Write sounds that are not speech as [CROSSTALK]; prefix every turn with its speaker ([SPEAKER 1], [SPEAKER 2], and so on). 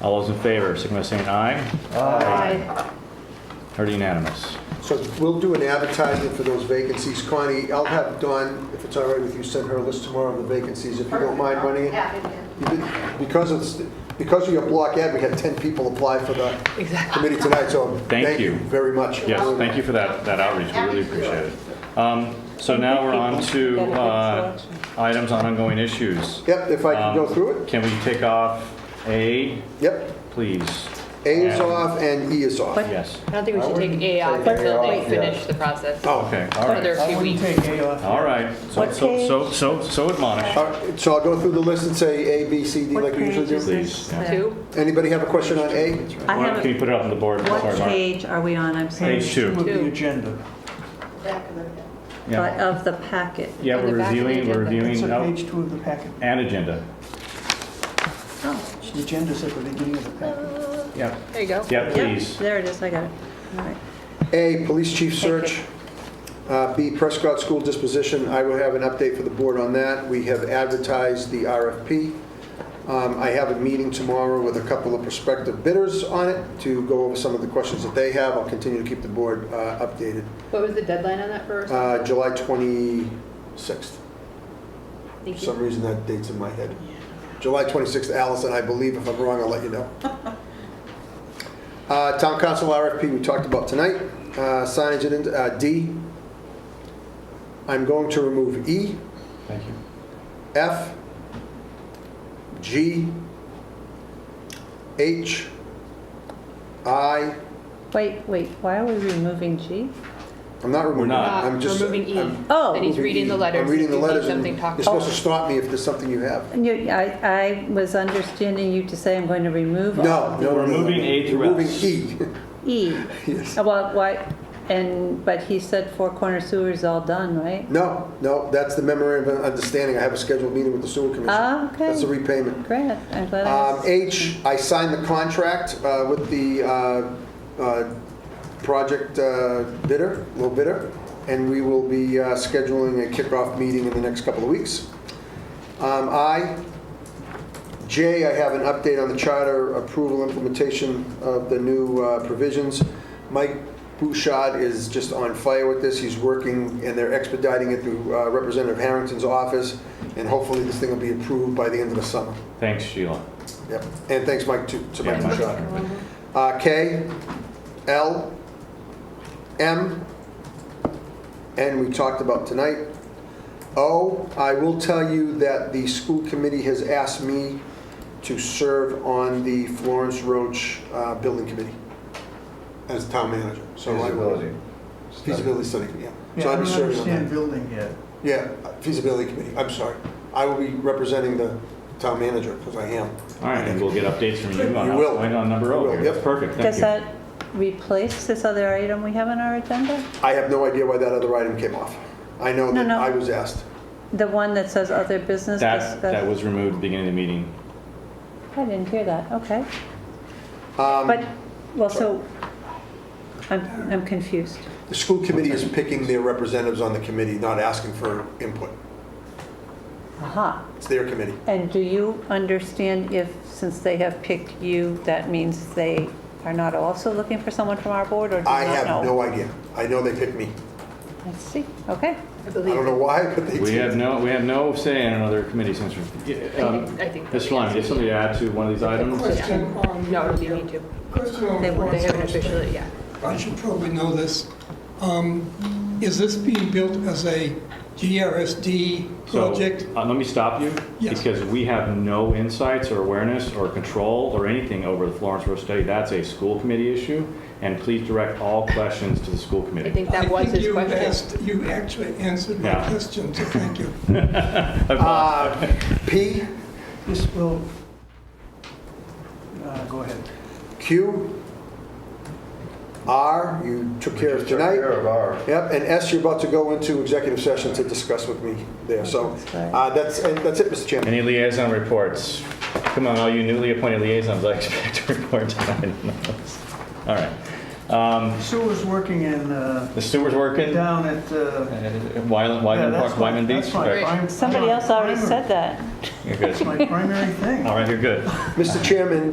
[SPEAKER 1] All those in favor, signify by saying aye. Heard unanimous.
[SPEAKER 2] So we'll do an advertisement for those vacancies. Connie, I'll have Dawn, if it's all right with you, send her a list tomorrow of the vacancies, if you don't mind running it.
[SPEAKER 3] Happy to.
[SPEAKER 2] You did- Because it's, because of your block ad, we had 10 people apply for the committee tonight, so
[SPEAKER 1] Thank
[SPEAKER 2] thank you
[SPEAKER 1] you.
[SPEAKER 2] very much.
[SPEAKER 1] Yes, thank you for that, that outreach, we really appreciate it. Um, So now we're on to uh, items on ongoing issues.
[SPEAKER 2] Yep, if I can go
[SPEAKER 1] Um,
[SPEAKER 2] through it?
[SPEAKER 1] Can we take off A,
[SPEAKER 2] Yep.
[SPEAKER 1] please?
[SPEAKER 2] A is
[SPEAKER 1] And-
[SPEAKER 2] off and E is off.
[SPEAKER 1] Yes,
[SPEAKER 4] I don't think we should take A off
[SPEAKER 5] take
[SPEAKER 4] until
[SPEAKER 5] A
[SPEAKER 4] they
[SPEAKER 5] off,
[SPEAKER 4] finish
[SPEAKER 5] yeah.
[SPEAKER 4] the process.
[SPEAKER 2] Oh,
[SPEAKER 1] okay, all
[SPEAKER 4] For
[SPEAKER 1] right,
[SPEAKER 4] their few weeks.
[SPEAKER 5] take A off.
[SPEAKER 1] all right. So,
[SPEAKER 6] What
[SPEAKER 1] so, so, so so admonish,
[SPEAKER 2] All right, so I'll go through the list and say A, B, C, D
[SPEAKER 6] What
[SPEAKER 2] like we usually
[SPEAKER 6] page is
[SPEAKER 2] do.
[SPEAKER 6] it?
[SPEAKER 1] please. yeah.
[SPEAKER 4] Two,
[SPEAKER 2] Anybody have a question on A?
[SPEAKER 6] I
[SPEAKER 1] Why don't- Can
[SPEAKER 6] have,
[SPEAKER 1] you put it up on the board? Sorry,
[SPEAKER 6] what
[SPEAKER 1] Mark.
[SPEAKER 6] page are we on, I'm sorry?
[SPEAKER 1] Page two.
[SPEAKER 5] With the
[SPEAKER 4] Two.
[SPEAKER 5] agenda.
[SPEAKER 3] Back of the-
[SPEAKER 6] But
[SPEAKER 1] Yeah,
[SPEAKER 6] of the packet.
[SPEAKER 1] Yeah,
[SPEAKER 4] On the
[SPEAKER 1] we're
[SPEAKER 4] back of the
[SPEAKER 1] reviewing, we're
[SPEAKER 4] agenda.
[SPEAKER 5] It's
[SPEAKER 1] reviewing
[SPEAKER 5] at
[SPEAKER 1] out-
[SPEAKER 5] page two of the packet.
[SPEAKER 1] an agenda.
[SPEAKER 6] Oh,
[SPEAKER 5] The agenda's at the beginning of the packet.
[SPEAKER 1] Yeah.
[SPEAKER 4] there you go.
[SPEAKER 1] Yeah,
[SPEAKER 6] yeah,
[SPEAKER 1] please.
[SPEAKER 6] There it is, I got it. All right.
[SPEAKER 2] A, police chief search. Uh, B, Prescott School disposition. I will have an update for the board on that. We have advertised the RFP. Um, I have a meeting tomorrow with a couple of prospective bidders on it to go over some of the questions that they have. I'll continue to keep the board uh, updated.
[SPEAKER 4] What was the deadline on that for us?
[SPEAKER 2] Uh, July 26th. For
[SPEAKER 4] Thank
[SPEAKER 2] some
[SPEAKER 4] you.
[SPEAKER 2] reason, that date's in my head. July 26th, Allison, I believe, if I'm wrong, I'll let
[SPEAKER 1] [LAUGHS]
[SPEAKER 2] you know. Uh, Town Council RFP, we talked about tonight. Uh, Signage, and, uh, D. I'm going to remove E,
[SPEAKER 1] Thank you.
[SPEAKER 2] F, G, H, I,
[SPEAKER 6] Wait, wait, why are we removing G?
[SPEAKER 2] I'm not removing,
[SPEAKER 4] Uh,
[SPEAKER 2] it.
[SPEAKER 1] not.
[SPEAKER 2] I'm just.
[SPEAKER 4] Removing E.
[SPEAKER 2] I'm
[SPEAKER 6] Oh.
[SPEAKER 4] Then he's reading the letters.
[SPEAKER 2] I'm reading
[SPEAKER 4] If
[SPEAKER 2] the
[SPEAKER 4] you need
[SPEAKER 2] letters, and
[SPEAKER 4] Something talked
[SPEAKER 2] you're
[SPEAKER 4] about.
[SPEAKER 2] supposed to stop me if there's something you have.
[SPEAKER 6] And you- I, I was understanding you to say I'm going to remove all
[SPEAKER 2] No,
[SPEAKER 6] of
[SPEAKER 2] no,
[SPEAKER 1] We're
[SPEAKER 2] no, no, no.
[SPEAKER 1] moving A through
[SPEAKER 2] Removing
[SPEAKER 1] S.
[SPEAKER 2] E.
[SPEAKER 6] E.
[SPEAKER 2] Yes.
[SPEAKER 6] Uh, Well, why, and, but he said Four Corner Sewer's all done, right?
[SPEAKER 2] No, no, that's the memorandum of understanding. I have a scheduled meeting with the sewer commission.
[SPEAKER 6] Ah, okay.
[SPEAKER 2] That's a repayment.
[SPEAKER 6] Great, I'm glad I
[SPEAKER 2] Um,
[SPEAKER 6] asked.
[SPEAKER 2] H, I signed the contract uh, with the uh, uh, project uh, bidder, low bidder, and we will be uh, scheduling a kickoff meeting in the next couple of weeks. Um, I, J, I have an update on the charter approval implementation of the new uh, provisions. Mike Bouchard is just on fire with this. He's working, and they're expediting it through uh, Representative Harrington's office, and hopefully this thing will be approved by the end of the summer.
[SPEAKER 1] Thanks, Sheila.
[SPEAKER 2] Yep, and thanks, Mike, to, to Mike
[SPEAKER 1] Yeah, Mike.
[SPEAKER 2] Bouchard. Uh, K, L, M, N, we talked about tonight. O, I will tell you that the school committee has asked me to serve on the Florence Roach uh, Building Committee as town manager. So I will- Feasibility study, yeah.
[SPEAKER 5] Yeah,
[SPEAKER 2] So
[SPEAKER 5] I
[SPEAKER 2] I'll
[SPEAKER 5] don't
[SPEAKER 2] be serving on
[SPEAKER 5] understand
[SPEAKER 2] that.
[SPEAKER 5] building yet.
[SPEAKER 2] Yeah, feasibility committee, I'm sorry. I will be representing the town manager, because I am.
[SPEAKER 1] All right, and we'll get updates from you on
[SPEAKER 2] You
[SPEAKER 1] what's
[SPEAKER 2] will.
[SPEAKER 1] going on number
[SPEAKER 2] You
[SPEAKER 1] O
[SPEAKER 2] will,
[SPEAKER 1] here.
[SPEAKER 2] yep.
[SPEAKER 1] That's perfect, thank
[SPEAKER 6] Does
[SPEAKER 1] you.
[SPEAKER 6] that replace this other item we have on our agenda?
[SPEAKER 2] I have no idea why that other item came off. I know
[SPEAKER 6] No,
[SPEAKER 2] that
[SPEAKER 6] no.
[SPEAKER 2] I was asked.
[SPEAKER 6] The one that says other business
[SPEAKER 1] That, that
[SPEAKER 6] discussed?
[SPEAKER 1] was removed at the beginning of the meeting.
[SPEAKER 6] I didn't hear that, okay.
[SPEAKER 2] Um,
[SPEAKER 6] But, well, so, I'm, I'm confused.
[SPEAKER 2] The school committee is picking their representatives on the committee, not asking for input.
[SPEAKER 6] Aha.
[SPEAKER 2] It's their committee.
[SPEAKER 6] And do you understand if, since they have picked you, that means they are not also looking for someone from our board, or do you not know?
[SPEAKER 2] I have no idea. I know they picked me.
[SPEAKER 6] I see,
[SPEAKER 4] I
[SPEAKER 6] okay.
[SPEAKER 2] I don't
[SPEAKER 4] believe.
[SPEAKER 2] know why, but they did.
[SPEAKER 1] We have no, we have no say in another committee since we're. Um,
[SPEAKER 4] I think.
[SPEAKER 1] Mr. Lyon, do you have something to add to one of these items?
[SPEAKER 7] Question on.
[SPEAKER 4] No, it'll be me too.
[SPEAKER 7] Question on.
[SPEAKER 6] They won't.
[SPEAKER 4] They haven't officially, yeah.
[SPEAKER 7] I should probably know this. Um, Is this being built as a GRSD
[SPEAKER 1] So,
[SPEAKER 7] project?
[SPEAKER 1] uh, Let me stop you.
[SPEAKER 7] Yes.
[SPEAKER 1] Because we have no insights or awareness or control or anything over the Florence Road study. That's a school committee issue. And please direct all questions to the school
[SPEAKER 4] I
[SPEAKER 1] committee.
[SPEAKER 4] think that was his
[SPEAKER 7] I think you
[SPEAKER 4] question.
[SPEAKER 7] asked, you actually answered my
[SPEAKER 1] Yeah.
[SPEAKER 7] question, so thank you.
[SPEAKER 2] Uh, P,
[SPEAKER 5] This will, uh, go ahead.
[SPEAKER 2] Q, R, you took care of tonight. Yep, and S, you're about to go into executive session to discuss with me there. So uh, that's, and that's it, Mr. Chairman.
[SPEAKER 1] Any liaison reports? Come on, all you newly appointed liaisons, I expect to report tonight. All right. Um,
[SPEAKER 5] Sewer's working in, uh,
[SPEAKER 1] The sewer's working?
[SPEAKER 5] down at, uh.
[SPEAKER 1] Wyland,
[SPEAKER 5] yeah,
[SPEAKER 1] Wyman
[SPEAKER 5] that's
[SPEAKER 1] Park,
[SPEAKER 5] my-
[SPEAKER 1] Wyman Beach?
[SPEAKER 5] that's my
[SPEAKER 1] Right.
[SPEAKER 5] prim-
[SPEAKER 6] Somebody else already
[SPEAKER 5] primary-
[SPEAKER 6] said that.
[SPEAKER 1] You're good.
[SPEAKER 5] My primary thing.
[SPEAKER 1] All right, you're good.
[SPEAKER 2] Mr. Chairman,